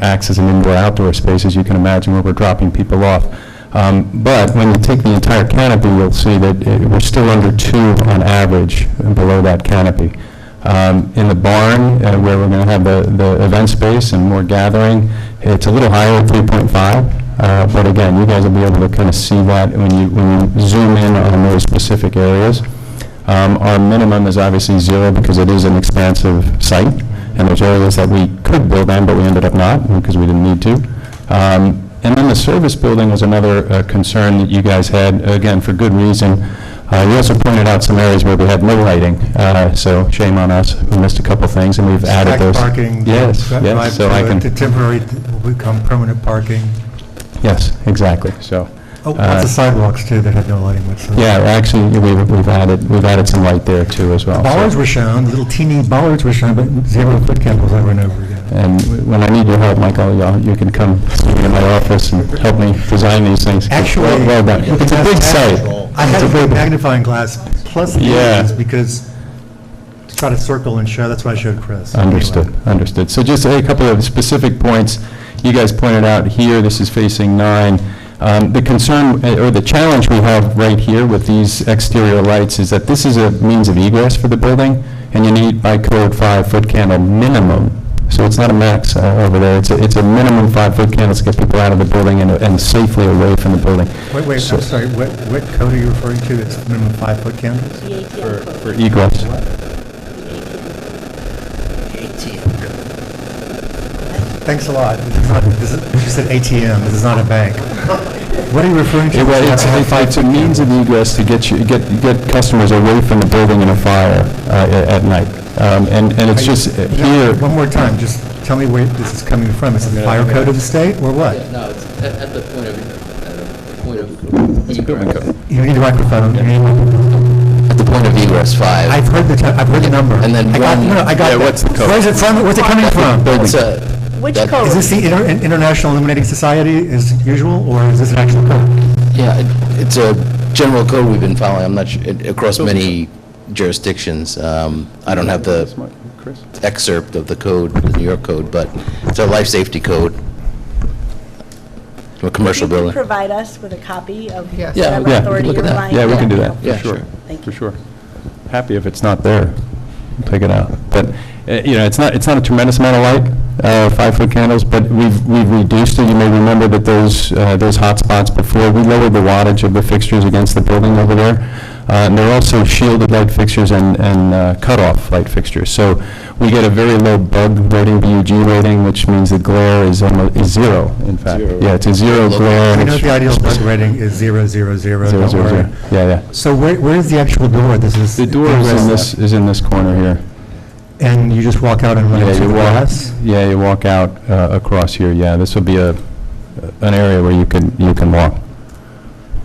acts as an indoor-outdoor space, as you can imagine, where we're dropping people off. Um, But when you take the entire canopy, you'll see that it- we're still under two on average uh, below that canopy. Um, In the barn, uh, where we're going to have the the event space and more gathering, it's a little higher at 3.5, uh, but again, you guys will be able to kind of see that when you when you zoom in on those specific areas. Um, Our minimum is obviously zero because it is an expansive site, and there's areas that we could build on, but we ended up not because we didn't need to. Um, And then the service building was another uh, concern that you guys had, again, for good reason. Uh, You also pointed out some areas where we had no lighting, uh, so shame on us, we missed a couple things, and we've added Back those. parking. Yes, that might yes, so I do it. The can, temporary will become permanent parking. yes, exactly, so. Oh, uh, lots of sidewalks too that had no lighting whatsoever. Yeah, actually, we've we've added, we've added some light there too as well. so- Bollards were shown, little teeny bollards were shown, but zero foot candles over and over again. And when I need your help, Michael, y'all- you can come see me in my office and help me design these things. Actually. Well- well done. It's a big site. I had It's a a big- magnifying glass plus Yeah. lenses because to try to circle and show, that's what I showed Chris. Anyway. Understood, understood. So just a couple of specific points. You guys pointed out here, this is facing nine. Um, The concern, eh, or the challenge we have right here with these exterior lights is that this is a means of egress for the building, and you need by code five-foot candle minimum. So it's not a max uh, over there, it's a, it's a minimum five-foot candles to get people out of the building and and safely away from the building. Wait, wait, So- I'm sorry, what, what code are you referring to? It's minimum five foot candles? For egress. Thanks a lot. This is not, this is, you said ATM, this is not a bank. What are you referring to? It- well, It's, it's- it's a means of egress to get you, get, get customers away from the building in a fire uh, a- at night. Um, And, and it's just uh, here, One more time, just tell me where this is coming from. Is it the fire code of the state or what? Yeah, no, it's at, at the point of, at the point of. egress. You need a microphone. You need a microphone. At the point of egress five. I've heard the, ti- I've heard the number. And then I got- one- No, no, I got yeah, that. what's the code? Where's it from? Where's it coming from? That's a. Which that- code? Is this the Inter- International Illuminating Society as usual, or is this an actual code? Yeah, it- it's a general code we've been following, I'm not, su- it- across many jurisdictions. Um, I don't have the excerpt of the code, the New York code, but it's a life safety code. A commercial If you could building. provide us with a copy of Yes. Yeah, whatever yeah. authority look you're at that. relying on. yeah, we can do that, for Yeah, sure, sure. Thank for you. sure. Happy if it's not there, We'll take it out. But, uh, you know, it's not, it's not a tremendous amount of light, uh, five-foot candles, but we've, we've reduced it. You may remember that those, uh, those hot spots before, we lowered the wattage of the fixtures against the building over there. Uh, And they're also shielded light fixtures and, and uh, cutoff light fixtures. So we get a very low bug rating, BUG rating, which means the glare is almost, is zero, in fact. Zero. Yeah, it's a zero Look. glare. and I know it's the ideal bug rating is zero, zero, zero, Zero, don't zero, worry. zero. Yeah, yeah. So where, where is the actual door? This is. The door is in this, is in this corner here. And you just walk out and run Yeah, into you the walk, grass? yeah, you walk out uh, across here, yeah. This will be a, an area where you can, you can walk.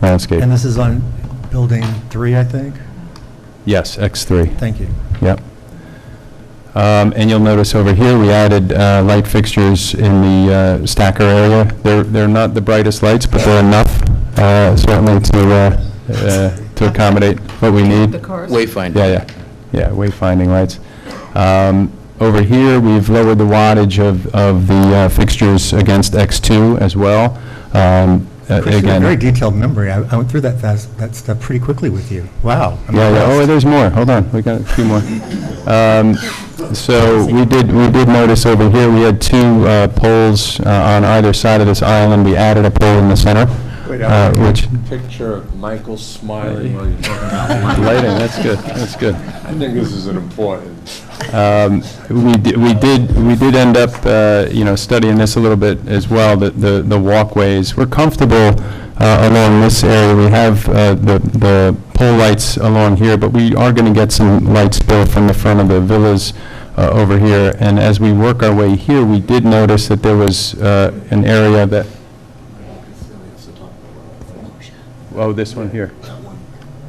Landscape. And this is on building three, I think? Yes, X3, Thank you. yep. Um, And you'll notice over here, we added uh, light fixtures in the uh, stacker area. They're, they're not the brightest lights, but they're enough uh, certainly to, uh, uh, to accommodate what we need. The cars? Wayfinder. Yeah, yeah, yeah, wayfinding lights. Um, Over here, we've lowered the wattage of, of the uh, fixtures against X2 as well. Um, uh, Chris, you have Again, very detailed memory. I I went through that fast, that stuff pretty quickly with you. Wow. I'm Yeah, yeah, oh, impressed. there's more, hold on, we got a few more. Um, So we did, we did notice over here, we had two uh, poles uh, on either side of this island. We added a pole in the center, Wait, uh, Alan. which, picture of Michael smiling while you're talking about it. lighting, that's good, that's good. I think this is an important. Um, We di- we did, we did end up, uh, you know, studying this a little bit as well, the- the the walkways. We're comfortable uh, along this area. We have uh, the the pole lights along here, but we are going to get some lights still from the front of the villas uh, over here. And as we work our way here, we did notice that there was uh, an area that, oh, this one here.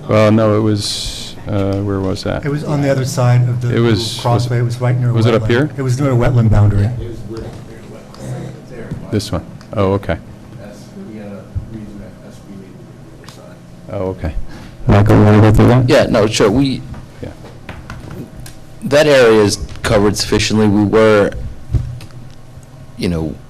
Well, no, it was, uh, where was that? It was on the other side of the It was- little was- crossway. It was right near a wetland. was it up here? It was near a wetland boundary. This one. Oh, okay. we had a uh, reason that that's we needed to be signed. Oh, okay. Michael, you want to go through that? Yeah, no, sure, we, Yeah. that area is covered sufficiently. We were, you know,